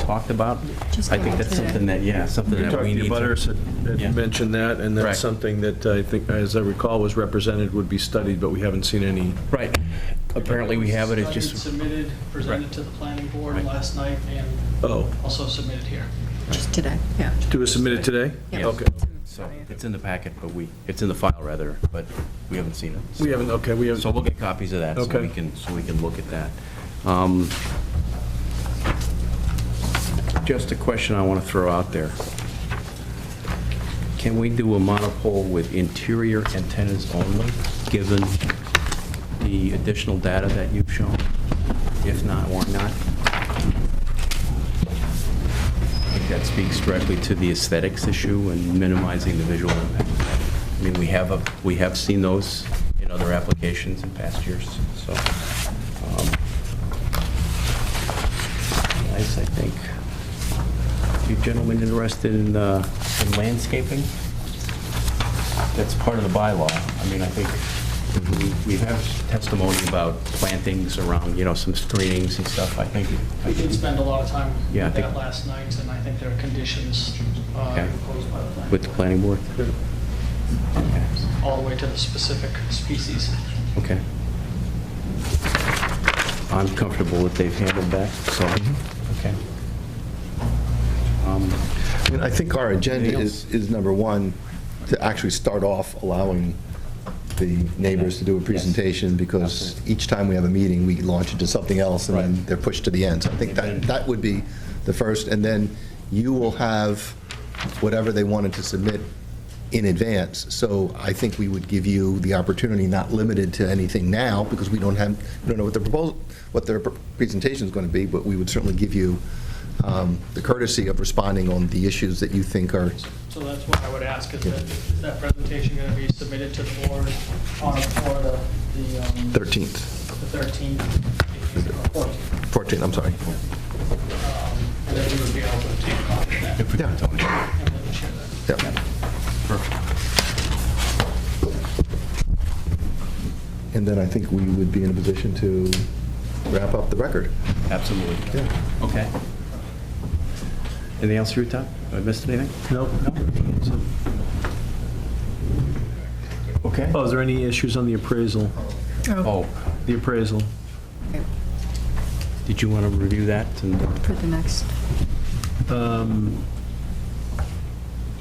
talked about, Just I think go that's through it. something that, yeah, something You that talked we to need your to. butters that that Yeah. mentioned that, and Correct. that's something that I think, as I recall, was represented, would be studied, but we haven't seen any. Right, apparently we have it, it's just, Studied, Submitted, presented Right. to the planning board Right. last night, and Oh, also submitted here. Just today, yeah. do we submit it today? Yeah. Okay. so, it's in the packet, but we, it's in the file rather, but we haven't seen it. so- We haven't, okay, we So haven't, we'll get copies of that, so we Okay. can, so we can look at that. Um, Just a question I want to throw out there. Can we do a monopole with interior antennas only, given the additional data that you've shown? If not, why not? I think that speaks directly to the aesthetics issue and minimizing the visual impact. I mean, we have, a we have seen those in other applications in past years, so. um, Nice, I think. You gentlemen interested in uh, in landscaping? That's part of the bylaw. I mean, I think we we have testimony about plantings around, you know, some screenings and stuff, I think. We did spend a lot of time Yeah, I with that think- last night, and I think there are conditions uh, Okay. imposed by the planning With the board, planning board? Okay. all the way to the specific species. Okay. I'm comfortable that they've handled that, so, okay. Mm-hmm. Um, I mean, I think our agenda Anything is, is number one, to actually start off allowing the neighbors to do a presentation, because each time we have a meeting, we launch into something else, and then Right. they're pushed to the end. So I think that, that would be the first, and then you will have whatever they wanted to submit in advance. So I think we would give you the opportunity, not limited to anything now, because we don't have, we don't know what the proposal, what their presentation is going to be, but we would certainly give you um, the courtesy of responding on the issues that you think are, So that's what I would ask, is that, is that presentation going to be submitted to the board on, for the, the um, 13th, the 13th, or 14th? 14th, I'm sorry. um, And then we would be able to take a copy of that If we could, Tony. and then share that. Yeah. And then I think we would be in a position to wrap up the record. Absolutely. Okay. Anything else, Ruth? Have I missed anything? Nope. Okay. Oh, is there any issues on the appraisal? Oh, The appraisal? Okay, did you want to review that? And uh, For the next, Um,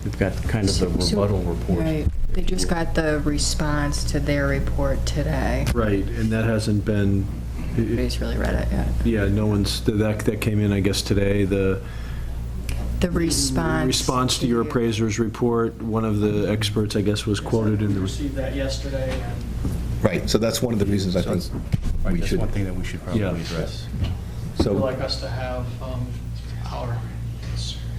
We've got kind of the So- so- rebuttal report. right, they just got the response to their report today. Right, and that hasn't been, Nobody's really read it yet. yeah, no one's, that, that came in, I guess, today, the. The response. Response to your appraiser's report, one of the experts, I guess, was quoted in We the, Received that yesterday, and Right, so that's one of the reasons I think Right, we that's should, one thing that we should probably Yeah. address. Would you so like us to have um, our,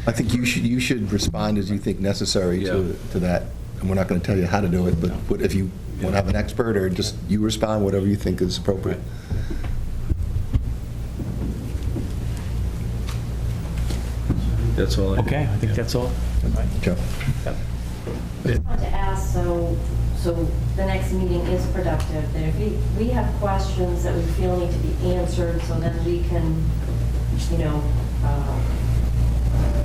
I think you should, you should respond as you think necessary to, Yeah. to that. And we're not going to tell you how to do it, but what- if you want to have an expert or just you respond, whatever you think is appropriate. that's all. I- Okay, I think that's all. Joe? want to ask, so, so the next meeting is productive, that if we, we have questions that we feel need to be answered, so then we can, you know, uh,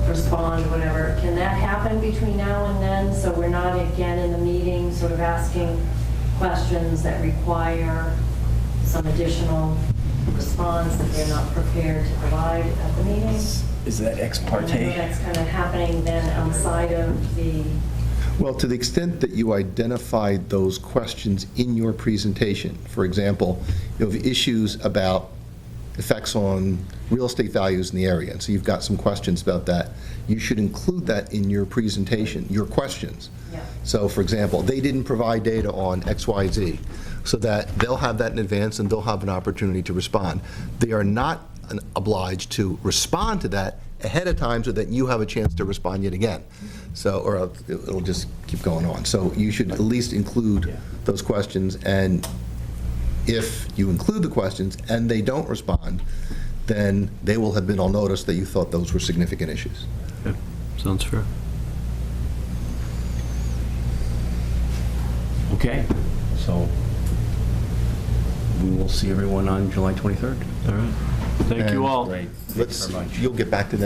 respond, whatever, can that happen between now and then? So we're not again in the meeting, sort of asking questions that require some additional response that they're not prepared to provide at the meeting? Is that ex And I know that's kind of happening then outside of the Well, to the extent that you identified those questions in your presentation, for example, you have issues about effects on real estate values in the area, and so you've got some questions about that, you should include that in your presentation, your questions. Yeah. So, for example, they didn't provide data on X, Y, Z, so that they'll have that in advance and they'll have an opportunity to respond. They are not an- obliged to respond to that ahead of time so that you have a chance to respond yet again. So, or else it'll just keep going on. So you should at least include those questions, and if you include the questions and they don't respond, then they will have been on notice that you thought those were significant issues. Yeah, Sounds fair. Okay, so we will see everyone on July 23rd. All right. Thank you And- all. Great. Thank you Let's, very much. you'll get back to them